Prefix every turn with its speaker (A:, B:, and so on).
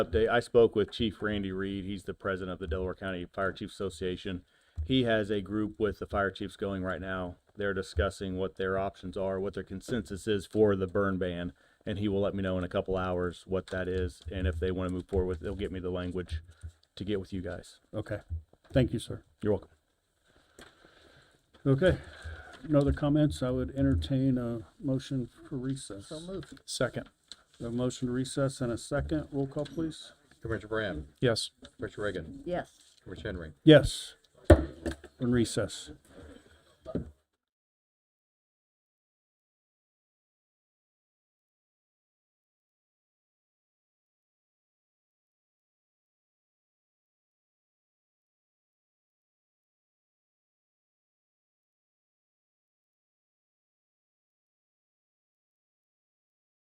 A: Update, I spoke with Chief Randy Reed, he's the president of the Delaware County Fire Chiefs Association. He has a group with the fire chiefs going right now. They're discussing what their options are, what their consensus is for the burn ban. And he will let me know in a couple hours what that is, and if they want to move forward with, it, they'll get me the language to get with you guys.
B: Okay, thank you, sir.
A: You're welcome.
B: Okay, no other comments? I would entertain a motion for recess. So moved.
C: Second.
B: A motion to recess and a second. Roll call, please.
D: Commissioner Brand,
C: Yes.
D: Commissioner Reagan,
E: Yes.
D: Commissioner Henry.
B: Yes. In recess.